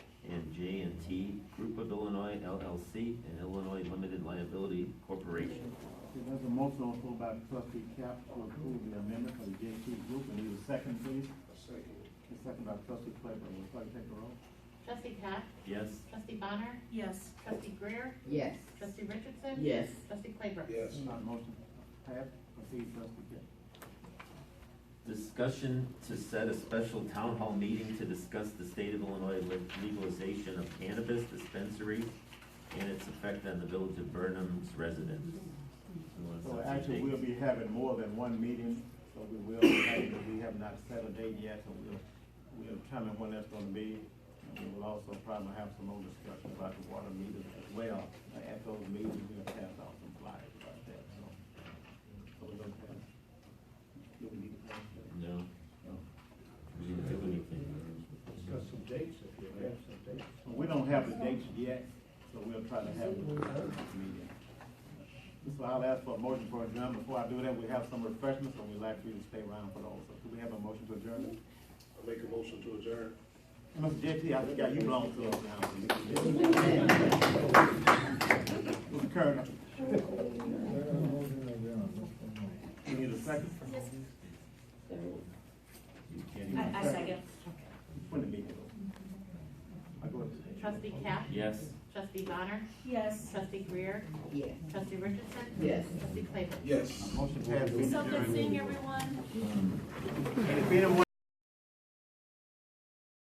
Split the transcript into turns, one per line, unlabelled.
T. Group of Illinois LLC and Illinois Limited Liability Corporation.
Okay, There's a motion on the floor by trustee Cap to approve the amendment for the JT Group, and need a second, please. A second by trustee Claybrook, will clerk take the roll?
Trustee Pat?
Yes,
Trustee Bonner?
Yes.
Trustee Greer?
Yes.
Trustee Richardson?
Yes.
Trustee Claybrook?
Yes.
Not motion passed, proceed trustee Cap.
discussion to set a special town hall meeting to discuss the state of Illinois le- legalization of cannabis dispensary and its effect on the village of Burnham's residents. We want to
So
set some
actually, we'll
dates.
be having more than one meeting, so we will, be having- we have not set a date yet, so we'll, we'll determine when that's gonna be. And we will also probably have some more discussion about the water meters as well. Uh, At those meetings, we'll pass out some flyers about that, so. So we're gonna pass. Do we need to pass that?
No,
No.
we didn't do anything.
Got some dates if you have some dates.
Well, We don't have the dates yet, so we'll try to have it at the next meeting. So I'll ask for a motion for adjournment. Before I do that, we have some refreshments, and we'd like for you to stay around for those. So do we have a motion to adjourn?
I make a motion to adjourn.
Mr. JT, I think you belong to us now. Mr. Kerner, you need a second?
You can't even-
I, I second.
When the meeting over. I go to-
Trustee Cap?
Yes.
Trustee Bonner?
Yes.
Trustee Greer?
Yes.
Trustee Richardson?
Yes.
Trustee Claybrook?
Yes.
Motion passed. We
So good
adjourn.
seeing everyone.
Any feeling more